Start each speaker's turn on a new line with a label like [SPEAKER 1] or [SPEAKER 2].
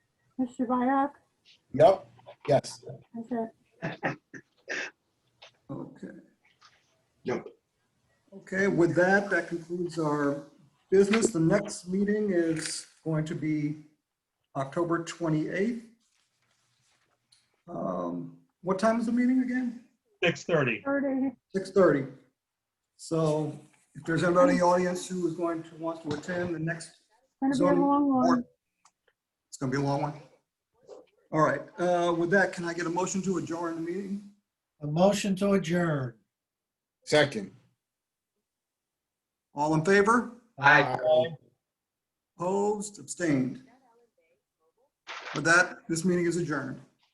[SPEAKER 1] Mr. Byrd,
[SPEAKER 2] Yep, yes.
[SPEAKER 1] is it?
[SPEAKER 3] Okay.
[SPEAKER 4] Yep.
[SPEAKER 3] Okay, with that, that concludes our business. The next meeting is going to be October 28th. Um, What time is the meeting again?
[SPEAKER 5] 6:30.
[SPEAKER 1] 30,
[SPEAKER 3] 6:30. So if there's anybody in the audience who is going to want to attend the next,
[SPEAKER 1] going to be a
[SPEAKER 3] Zoning
[SPEAKER 1] long one.
[SPEAKER 3] it's going to be a long one. All right, uh, with that, can I get a motion to adjourn the meeting?
[SPEAKER 6] A motion to adjourn.
[SPEAKER 2] Second.
[SPEAKER 3] All in favor?
[SPEAKER 4] Aye.
[SPEAKER 2] Uh,
[SPEAKER 3] Opposed, abstained. With that, this meeting is adjourned.